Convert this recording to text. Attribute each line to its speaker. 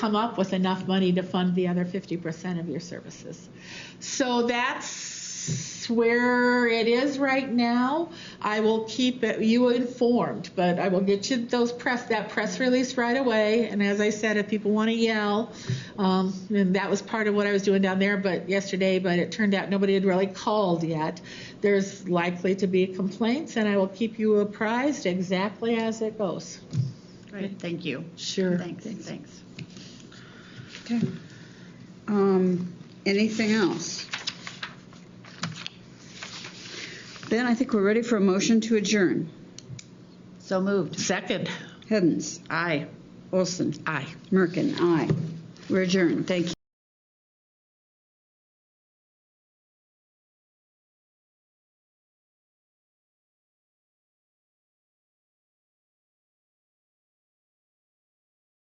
Speaker 1: come up with enough money to fund the other 50% of your services. So that's where it is right now. I will keep it- you informed, but I will get you those press, that press release right away. And as I said, if people want to yell, um, and that was part of what I was doing down there but yesterday, but it turned out nobody had really called yet. There's likely to be complaints, and I will keep you apprised exactly as it goes.
Speaker 2: Right, thank you.
Speaker 1: Sure.
Speaker 2: Thanks, thanks.
Speaker 3: Okay. Um, anything else? Then I think we're ready for a motion to adjourn.
Speaker 2: So moved.
Speaker 1: Second.
Speaker 3: Hens,
Speaker 2: Aye.
Speaker 3: Olson,
Speaker 1: Aye.
Speaker 3: Merkin, aye. We're adjourned. Thank you.